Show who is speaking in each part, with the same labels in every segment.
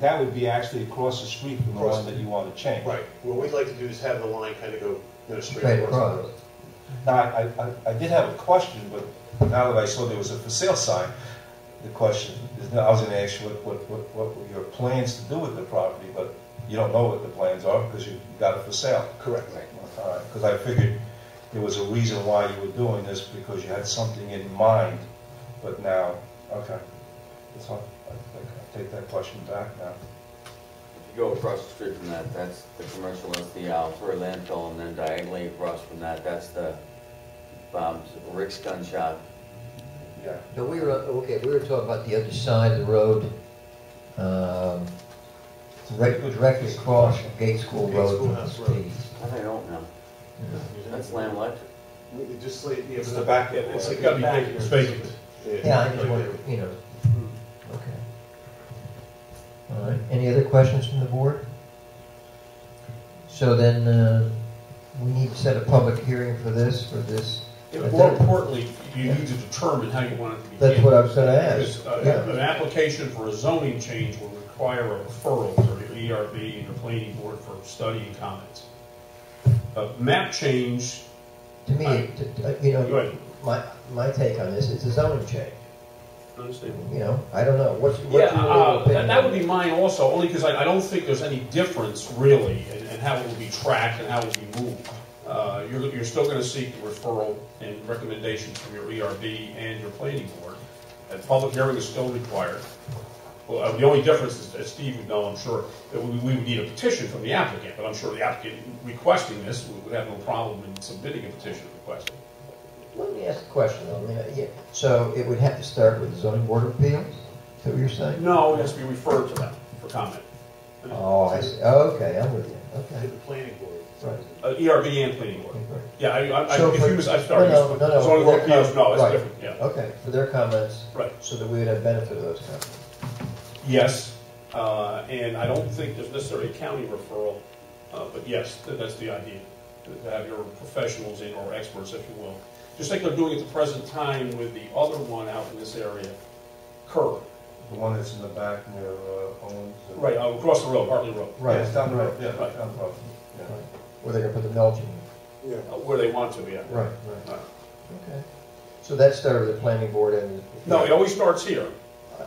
Speaker 1: that would be actually across the street from the
Speaker 2: Across
Speaker 1: one
Speaker 2: the-
Speaker 1: that you want to change.
Speaker 2: Right, what we'd like to do is have the line kind of go, you know, straight.
Speaker 3: Straight
Speaker 2: across.
Speaker 3: across.
Speaker 1: Now, I, I- I, I did have a question, but now that I saw there was a for sale sign, the question is, I was gonna ask you what, what, what- what were your plans to do with the property, but you don't know what the plans are because you you got it for sale.
Speaker 2: Correct.
Speaker 1: Because I figured there was a reason why you were doing this, because you had something in mind, but now, okay. That's all, I think I take that question back now.
Speaker 4: If you go across the street from that, that's the commercial, that's the Alfred landfill, and then diagonally across from that, that's the um, Rick's Gun Shop.
Speaker 1: Yeah.
Speaker 3: But we were, okay, we were talking about the other side of the road, um, right- directly across from Gate School
Speaker 2: Gate
Speaker 3: Road.
Speaker 2: Schoolhouse Road.
Speaker 4: That I don't know. That's Lamb Electric.
Speaker 2: It Just like, yeah.
Speaker 1: It's the back end.
Speaker 2: It's like
Speaker 1: It's gotta
Speaker 2: the
Speaker 1: be
Speaker 2: back
Speaker 1: big
Speaker 2: end.
Speaker 1: spaces.
Speaker 3: Yeah, I just wondered, you know, okay. All right, any other questions from the board? So then, uh, we need to set a public hearing for this, for this,
Speaker 5: And More importantly, you need to determine how you want it to be
Speaker 3: that's
Speaker 5: handled.
Speaker 3: what I was gonna ask.
Speaker 5: Because uh,
Speaker 3: Yeah,
Speaker 5: an application for a zoning change will require a referral to the ERB and the planning board for study and comments. A map change,
Speaker 3: to me, it- t- t- you
Speaker 5: go
Speaker 3: know,
Speaker 5: ahead,
Speaker 3: my, my take on this, it's a zoning change,
Speaker 5: understandable.
Speaker 3: you know, I don't know, what's, what's your
Speaker 5: Yeah,
Speaker 3: overall
Speaker 5: uh,
Speaker 3: opinion
Speaker 5: that, that
Speaker 3: on
Speaker 5: would be mine also, only because I, I don't think there's any difference really in, in how it will be tracked and how it will be moved. Uh, you're, you're still gonna seek the referral and recommendations from your ERB and your planning board. A public hearing is still required. Well, uh, the only difference is, as Steve would know, I'm sure, that we, we would need a petition from the applicant, but I'm sure the applicant requesting this would- would have no problem in submitting a petition requesting.
Speaker 3: Let me ask a question, though. I mean, yeah, so it would have to start with the zoning board of appeals, is that what you're saying?
Speaker 5: No, it has to be referred to them for comment.
Speaker 3: Oh, I see, Oh, okay, I'm with you,
Speaker 2: To
Speaker 3: okay.
Speaker 2: the planning board.
Speaker 3: Right.
Speaker 5: Uh, ERB and planning board.
Speaker 3: Okay.
Speaker 5: Yeah, I, I,
Speaker 3: So
Speaker 5: I
Speaker 3: for-
Speaker 5: if you was, I
Speaker 3: No,
Speaker 5: started.
Speaker 3: no, no, no.
Speaker 5: As long as
Speaker 3: for
Speaker 5: we're
Speaker 3: their
Speaker 5: POs, no,
Speaker 3: com-
Speaker 5: it's
Speaker 3: right.
Speaker 5: different, yeah.
Speaker 3: Okay, for their comments,
Speaker 5: Right,
Speaker 3: so that we would have benefit of those comments.
Speaker 5: yes, uh, and I don't think there's necessarily a county referral, uh, but yes, th- that's the idea. to- To have your professionals in, or experts, if you will, just like they're doing at the present time with the other one out in this area, Kerr,
Speaker 1: The one that's in the back near uh, Owens. and-
Speaker 5: right, uh, across the road, Hartley Road.
Speaker 1: Right, it's down the road, yeah,
Speaker 5: Right.
Speaker 1: down the road. yeah.
Speaker 3: Right. Where they're gonna put the mulching.
Speaker 2: Yeah.
Speaker 5: Uh, Where they want to be at. Uh,
Speaker 3: Right,
Speaker 5: Right.
Speaker 3: Okay. So that started with the planning board and.
Speaker 5: No, it always starts here,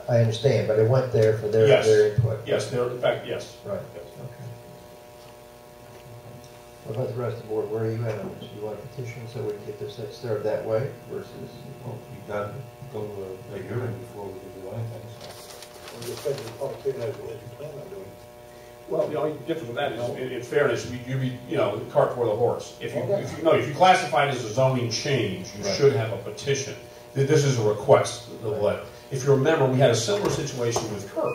Speaker 3: I understand, but it went there for their,
Speaker 5: Yes.
Speaker 3: their input.
Speaker 5: yes, there, in fact, yes.
Speaker 3: Right,
Speaker 5: Yes.
Speaker 3: okay. What about the rest of the board, where are you at on this? You want a petition so we can get this started that way versus?
Speaker 1: Well, we got to go to a hearing before we can do anything, so.
Speaker 2: Well, you said the public hearing, that's what you plan on doing.
Speaker 5: Well, the only difference with that is, in- in fairness, you- you'd be, you know, the cart before the horse. If you, if you, no, if you classify it as a zoning change, you
Speaker 1: Right.
Speaker 5: should have a petition. Th- This is a request, the letter. If you remember, we had a similar situation with Kirk,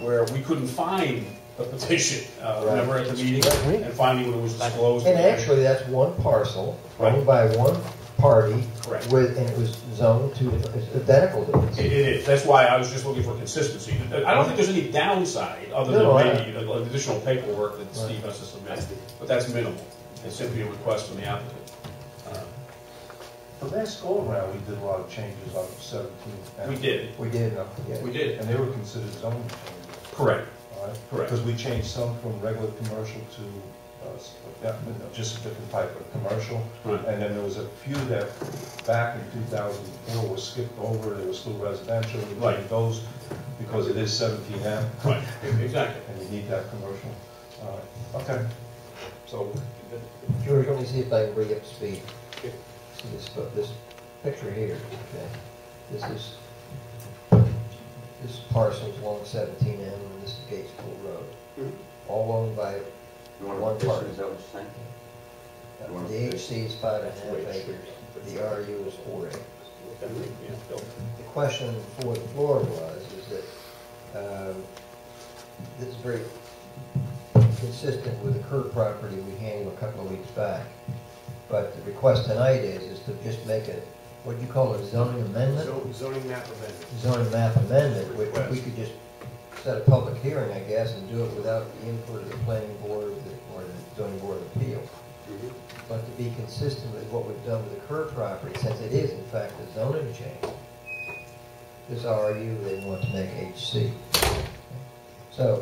Speaker 5: where we couldn't find the petition, uh,
Speaker 3: Right.
Speaker 5: remember at the meeting? And finally, when it was disclosed.
Speaker 3: And actually, that's one parcel,
Speaker 5: Right.
Speaker 3: owned by one party.
Speaker 5: Correct.
Speaker 3: With, and it was zoned to, it's identical to
Speaker 5: It
Speaker 3: this.
Speaker 5: it is, that's why I was just looking for consistency. I don't think there's any downside, other
Speaker 3: No,
Speaker 5: than
Speaker 3: I-
Speaker 5: maybe you know, additional paperwork that Steve has to submit, but that's minimal. It's simply a request from the applicant. Uh,
Speaker 1: The last go around, we did a lot of changes on seventeen. and-
Speaker 5: We did.
Speaker 3: We did,
Speaker 1: No.
Speaker 3: yeah.
Speaker 5: We did.
Speaker 1: And they were considered zoning changes,
Speaker 5: Correct.
Speaker 1: all right?
Speaker 5: Correct.
Speaker 1: Because we changed some from regular commercial to, uh, s- yeah, you know, just a different type of commercial.
Speaker 5: Right.
Speaker 1: And then there was a few that back in two thousand and four were skipped over, they were still residential. We
Speaker 5: Right.
Speaker 1: changed Those, because it is seventeen M,
Speaker 5: Right, exactly.
Speaker 1: and you need that commercial. All right, okay.
Speaker 5: So,
Speaker 3: George, let me see if I can bring you up to speed.
Speaker 2: Okay.
Speaker 3: See this, fo- this picture here, okay? This is, this parcel's along seventeen M, and this is Gates Pool Road.
Speaker 2: Mhm.
Speaker 5: Mm-hmm.
Speaker 3: All owned by,
Speaker 4: You want
Speaker 3: One
Speaker 4: a petition,
Speaker 3: part.
Speaker 4: is that what you're saying? You
Speaker 3: uh,
Speaker 4: want
Speaker 3: the
Speaker 4: to-
Speaker 3: HC is five and a half acres, the RU is four acres. The question for the floor was, is that, um, this is very consistent with the Kerr property we handled a couple of weeks back. But the request tonight is, is to just make a, what do you call it, zoning amendment?
Speaker 2: Zo- Zoning map amendment.
Speaker 3: Zoning map amendment, which we
Speaker 2: Request.
Speaker 3: could just set a public hearing, I guess, and do it without the input of the planning board or the- or the zoning board of appeals. But to be consistent with what we've done with the Kerr property, since it is in fact a zoning change, this RU, they want to make HC.